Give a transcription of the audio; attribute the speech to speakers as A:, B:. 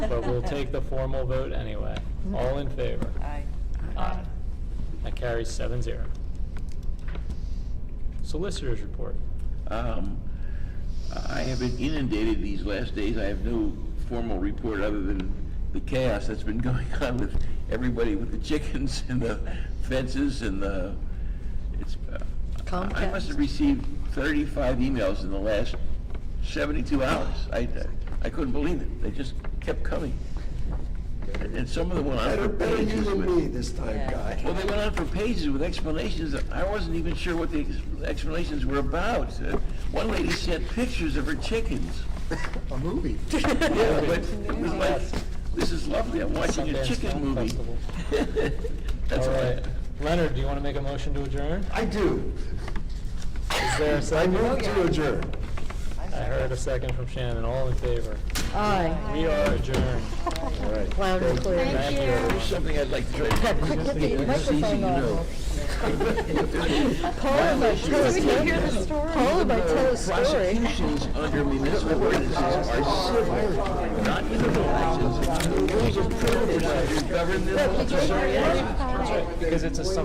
A: But we'll take the formal vote anyway. All in favor?
B: Aye.
A: Aye. That carries seven zero. Solicitors report.
C: Um, I have been inundated these last days. I have no formal report other than the chaos that's been going on with everybody with the chickens and the fences and the, it's, uh, I
B: Comcast.
C: must have received 35 emails in the last 72 hours. I, I couldn't believe it. They just kept coming. And and some of them went on
D: Better,
C: for
D: better you
C: pages
D: than
C: with-
D: me this time,
B: Yeah.
C: well, they
D: guy.
C: went on for pages with explanations. that I wasn't even sure what the ex- explanations were about. Uh, One lady sent pictures of her chickens.
D: A movie.
C: Yeah, but it was like, this is lovely, I'm watching a
A: Sundance
C: chicken
A: Film
C: movie.
A: Festival.
C: That's
A: All
C: all I-
A: right. Leonard, do you want to make a motion to adjourn?
D: I do.
A: Is there a
D: I
A: second?
D: move to adjourn.
A: I heard a second from Shannon. All in favor?
B: Aye.
A: We are adjourned.
D: All right.
B: Loud and clear.
A: Thank you.
C: There's something I'd like to try to.
B: Get
C: It's
B: the
C: easy to
B: microphone
C: know.
B: off. Paula might tell us, Paula might tell a story.
C: Prosecutions under municipal ordinances are civil, not criminal actions. Rules of criminal procedure govern them.
A: That's right, Because it's a